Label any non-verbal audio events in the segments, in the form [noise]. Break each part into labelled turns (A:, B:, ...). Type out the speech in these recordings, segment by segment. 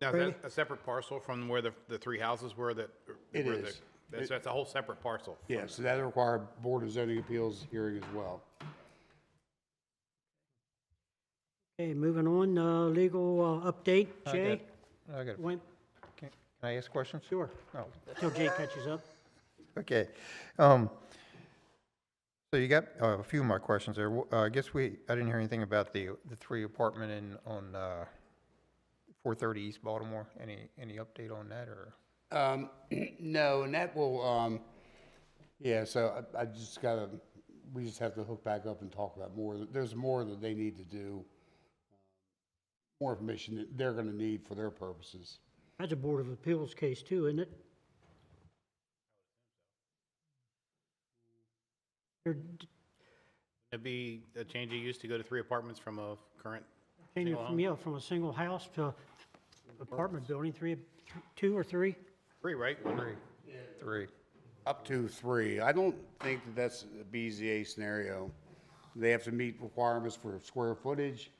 A: Now, is that a separate parcel from where the, the three houses were that?
B: It
A: where the-
B: is.
A: That's, that's a whole separate parcel.
B: Yeah, so that'll require Board of Zoning Appeals hearing as well.
C: Okay, moving on, uh, legal uh, update,
D: I
C: Jay?
D: got- I got, a-
C: When,
D: can can I ask questions?
C: sure,
D: No.
C: till Jay catches up.
D: Okay. Um, So you got uh, a few more questions there. Wh- uh, I guess we, I didn't hear anything about the, the three apartment in, on uh, 430 East Baltimore. Any, any update on that or?
B: Um, [clears throat] no, and that will, um, yeah, so I, I just gotta, we just have to hook back up and talk about more. There's more that they need to do. More information that they're gonna need for their purposes.
C: That's a Board of Appeals case too, isn't it? They're d-
A: It'd be a change of use to go to three apartments from a current
C: changing
A: Single
C: from,
A: home?
C: yeah, from a single house to apartment building, three, two or three?
A: three, right?
D: Three. Three.
B: Up to three. I don't think that that's a BZA scenario. They have to meet requirements for square footage,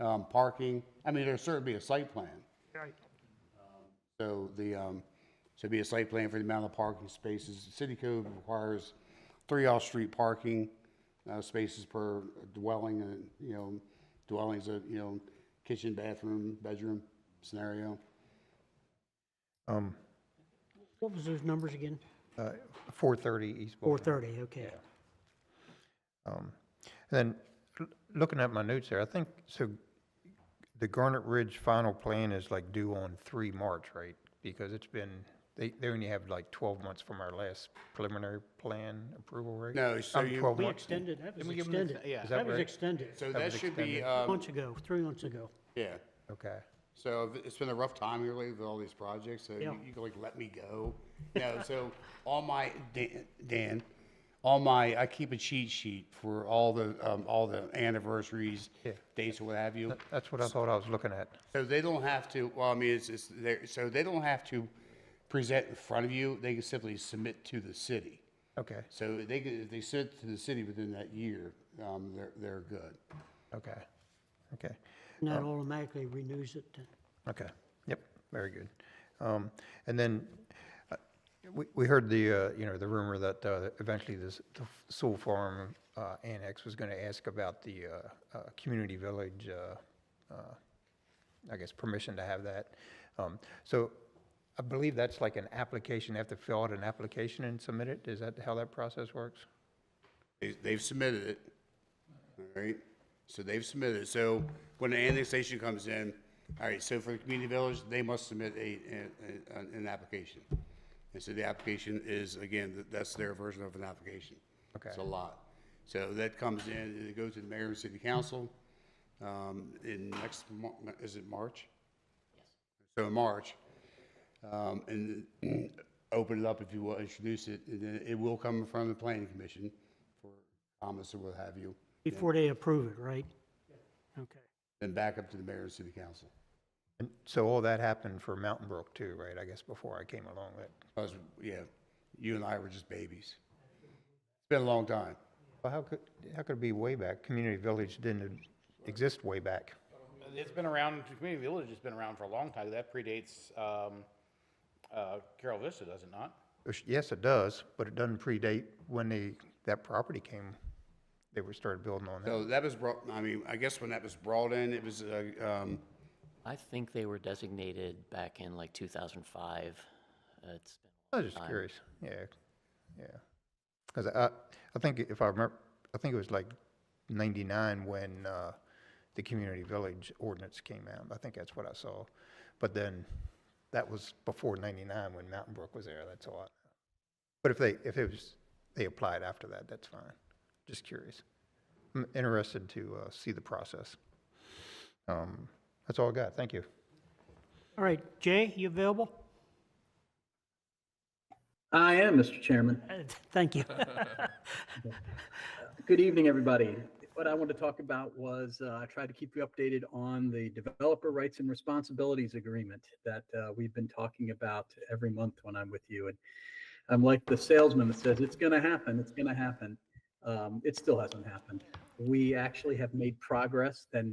B: um, parking. I mean, there'll certainly be a site plan.
C: Right.
B: So the, um, should be a site plan for the amount of parking spaces. City code requires three off-street parking, uh, spaces per dwelling, and, you know, dwellings, uh, you know, kitchen, bathroom, bedroom scenario.
D: Um,
C: What was those numbers again?
D: uh, 430 East Baltimore.
C: Four thirty, okay.
D: Um, And then, l- looking at my notes there, I think, so the Garnet Ridge final plan is like due on three March, right? Because it's been, they, they only have like twelve months from our last preliminary plan approval, right?
B: No, so
D: Um,
B: you-
D: 12
C: We
D: months.
C: extended, that was
A: we give them the-
C: extended.
A: yeah. Is
D: that
C: That was
D: right?
C: extended,
B: So
D: That
B: that
D: was
B: should be,
D: extended.
B: um,
C: months ago, three months ago.
B: yeah.
D: Okay,
B: So if- it's been a rough time here lately with all these projects, so
C: Yeah.
B: you, you can like, let me go. No, so all my, Dan, Dan, all my, I keep a cheat sheet for all the, um, all the anniversaries,
D: Yeah.
B: dates or what have you.
D: that's what I thought I was looking at.
B: So they don't have to, well, I mean, it's, it's there, so they don't have to present in front of you, they can simply submit to the city.
D: Okay,
B: So they can, if they submit to the city within that year, um, they're, they're good.
D: okay, okay.
C: And that
A: Oh.
C: automatically renews it. then.
D: Okay, yep, very good. Um, And then, uh, we, we heard the, uh, you know, the rumor that uh, eventually this, the Soul Farm uh, Annex was gonna ask about the uh, uh, community village, uh, uh, I guess, permission to have that. Um, So I believe that's like an application, they have to fill out an application and submit it? Is that how that process works?
B: They- They've submitted it, all right? So they've submitted it. So when the annexation comes in, all right, so for the community village, they must submit a, a- an, an application. And so the application is, again, th- that's their version of an application. It's a
D: Okay.
B: lot. So that comes in, and it goes to the mayor and city council, um, in next, Mar- is it March? So in March, um, and open it up if you will, introduce it, and then it will come in front of the planning commission for comments or what have you,
C: Before they approve it, right? Okay.
B: then back up to the mayor and city council.
D: And so all that happened for Mountain Brook too, right? I guess before I came along, that,
B: Because, yeah, you and I were just babies. It's been a long time.
D: well, how could, how could it be way back? Community village didn't exist way back.
A: It's been around, community village has been around for a long time. That predates, um, uh, Carol Vista, does it not?
D: Which, Yes, it does, but it doesn't predate when the, that property came, they were started building on that.
B: So that was brought, I mean, I guess when that was brought in, it was, uh, um,
E: I think they were designated back in like 2005. Uh, It's been
D: I was just curious, yeah, yeah. Because I, I think if I remember, I think it was like ninety-nine when, uh, the community village ordinance came out. I think that's what I saw. But then, that was before ninety-nine when Mountain Brook was there, that's all. I But if they, if it was, they applied after that, that's fine. Just curious. I'm interested to, uh, see the process. Um, that's all I got, thank you.
C: All right, Jay, you available?
F: I am, Mr. Chairman.
C: Uh, Thank you.
F: Good evening, everybody. What I wanted to talk about was uh, I tried to keep you updated on the Developer Rights and Responsibilities Agreement that uh, we've been talking about every month when I'm with you. And I'm like the salesman that says, it's going to happen, it's going to happen. Um, It still hasn't happened. We actually have made progress than